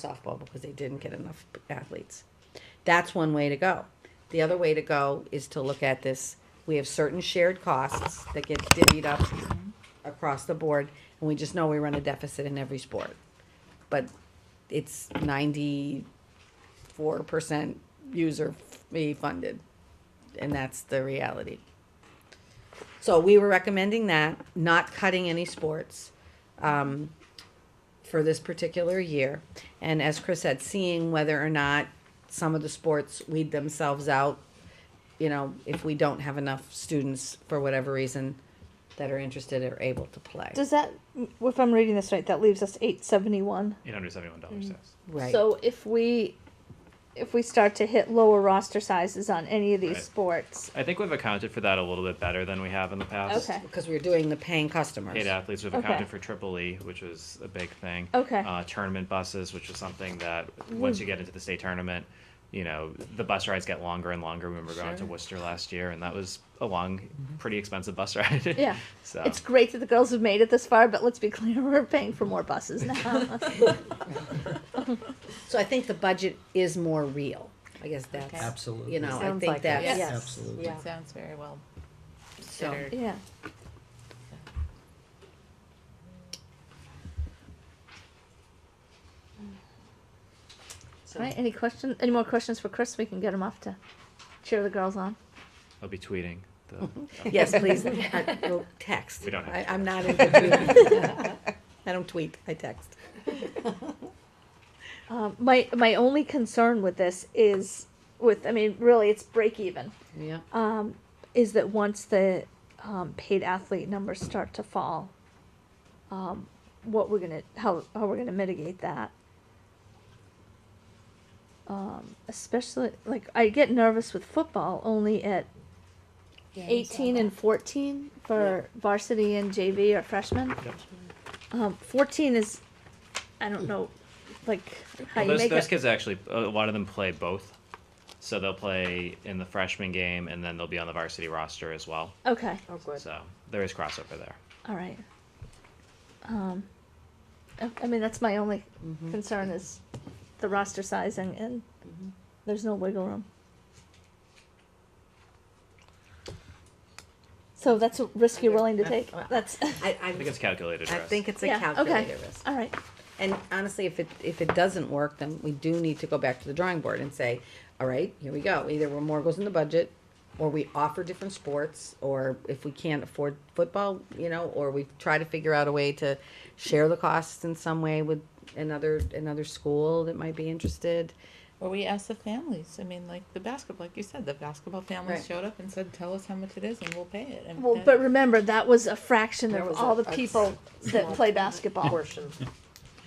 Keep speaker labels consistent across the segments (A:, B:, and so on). A: softball because they didn't get enough athletes. That's one way to go. The other way to go is to look at this, we have certain shared costs that get divvied up across the board, and we just know we run a deficit in every sport. But it's ninety-four percent user fee funded, and that's the reality. So we were recommending that, not cutting any sports um, for this particular year. And as Chris said, seeing whether or not some of the sports weed themselves out, you know, if we don't have enough students for whatever reason that are interested or able to play.
B: Does that, if I'm reading this right, that leaves us eight seventy one.
C: Eight hundred seventy-one dollars.
B: Mm.
C: Yes.
A: Right.
B: So if we, if we start to hit lower roster sizes on any of these
C: Right.
B: sports,
C: I think we've accounted for that a little bit better than we have in the past.
B: Okay.
A: because we were doing the paying customers.
C: Paid athletes, we've
B: Okay.
C: accounted for triple E, which was a big thing.
B: Okay. Mm.
C: Uh, tournament buses, which is something that, once you get into the state tournament, you know, the bus rides get longer and longer. We remember going to
A: Sure.
C: Worcester last year, and that was a long, pretty expensive bus ride.
B: yeah,
C: So.
B: it's great that the girls have made it this far. But let's be clear, we're paying for more buses now.
A: So I think the budget is more real. I guess that's
D: Okay.
E: Absolutely.
A: You know, I
F: Sounds
A: think
F: like it.
A: that's
B: Yes.
E: Absolutely.
F: It sounds very well
A: so.
F: considered.
B: yeah.
A: so-
B: All right. Any question? Any more questions for Chris? We can get him off to cheer the girls on.
C: I'll be tweeting. The,
A: Yes, please. I- well, Text.
C: We don't have
A: I-
C: to
A: I'm not into tweeting. I don't tweet, I text.
B: Um, my my only concern with this is with I mean really it's break even
A: Yeah.
B: um, is that once the um, paid athlete numbers start to fall, um, what we're gonna how how we're gonna mitigate that. Um, especially like I get nervous with football only at eighteen and fourteen for varsity and JV or freshmen.
C: Yep.
B: Um, fourteen is, I don't know, like how
C: Well,
B: you
C: those,
B: make
C: those
B: it.
C: kids actually, a lot of them play both. So they'll play in the freshman game, and then they'll be on the varsity roster as well.
B: Okay.
F: Oh, good.
C: So there is crossover there.
B: All right. Um, I, I mean, that's my only
F: Mm-hmm.
B: concern is the roster sizing and there's no wiggle room. So that's a risk you're willing to take. That's,
A: I,
C: I think it's calculated.
A: I
C: risk.
A: think it's a
B: Yeah, okay.
A: calculated risk.
B: all right.
A: And honestly, if it, if it doesn't work, then we do need to go back to the drawing board and say, all right, here we go. Either we're more goes in the budget, or we offer different sports, or if we can't afford football, you know, or we try to figure out a way to share the costs in some way with another, another school that might be interested.
F: Well, we asked the families. I mean, like the basketball, like you said, the basketball families
A: Right.
F: showed up and said, "Tell us how much it is, and we'll pay it." And
B: Well,
F: that-
B: but remember, that was a fraction
F: There
B: of
F: was
B: all
F: a-
B: the
F: a
B: people that
F: small
B: play basketball.
F: portion.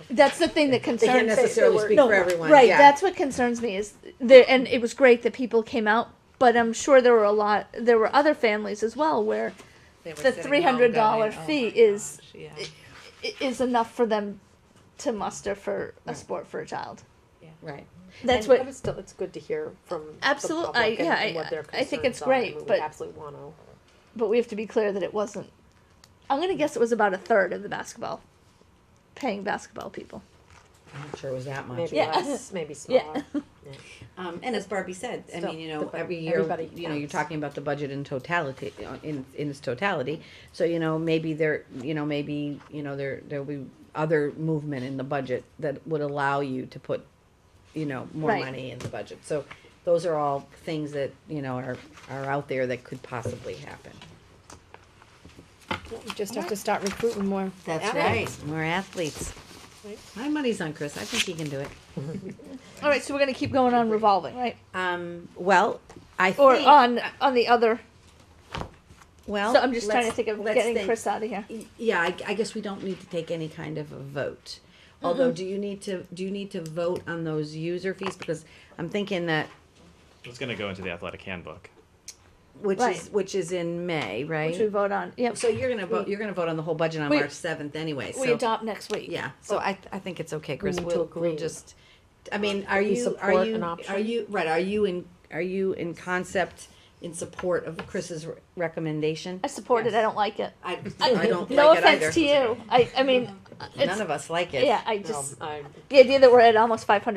B: That's the thing that
A: They
B: concerns me.
A: can't necessarily speak
B: No,
A: for everyone.
B: Right,
A: yeah.
B: that's what concerns me is the and it was great that people came out, but I'm sure there were a lot there were other families as well where
F: They were
B: the
F: sitting home
B: $300
F: going, "Oh
B: fee
F: my
B: is-
F: gosh, yeah.
B: i- is enough for them to muster for a
A: Right.
B: sport for a child.
A: Right.
B: That's
G: And-
B: what
G: But it's still, it's good to hear from the
B: Absolute- I-
G: public and-
B: yeah,
G: and
B: I-
G: what their
B: I think
G: concerns
B: it's
G: are.
B: great,
G: I mean,
B: but-
G: we absolutely want to.
B: but we have to be clear that it wasn't I'm going to guess it was about a third of the basketball paying basketball people.
A: I'm not sure it was that much.
G: Maybe
B: Yeah.
G: less, maybe
B: Yeah.
G: smaller.
A: Um, and as Barbie said, I
G: Still,
A: mean, you
G: the
A: know,
G: budget-
A: every year,
G: everybody
A: you know, you're
G: counts.
A: talking about the budget in totality, uh, in, in its totality. So, you know, maybe there, you know, maybe, you know, there, there'll be other movement in the budget that would allow you to put, you know, more
B: Right.
A: money in the budget. So those are all things that, you know, are, are out there that could possibly happen.
D: You just have to start recruiting more. athletes.
A: More athletes.
G: Right.
A: My money's on Chris. I think he can do it.
B: All right, so we're going to keep going on revolving, right?
A: Um, well, I think.
B: Or on on the other.
A: uh, Well,
B: So I'm just trying to
A: let's-
B: think of
A: let's
B: getting
A: think.
B: Chris out of here.
A: Y- Yeah, I, I guess we don't need to take any kind of a vote.
G: Mm-hmm.
A: Although, do you need to, do you need to vote on those user fees? Because I'm thinking that,
C: It's going to go into the athletic handbook.
A: which is,
B: Right.
A: which is in May,
B: Which we
A: right?
B: vote on. Yep.
A: So you're gonna vote, you're gonna vote on the whole budget on
B: We-
A: March seventh anyway,
B: we
A: so,
B: adopt next week.
A: yeah, so I, I think it's okay, Chris,
G: need to
A: we'll, we'll
G: agree.
A: just, I mean, are
G: We
A: you, are
G: support
A: you,
G: an
A: are
G: option.
A: you, right, are you in, are you in concept in support of Chris's re- recommendation?
B: I support it. I don't like it.
A: I, I don't like it either.
B: no offense to you. I, I mean,
A: None of us like it.
B: Yeah, I
G: No,
B: just
G: I
B: the idea that we're at almost 500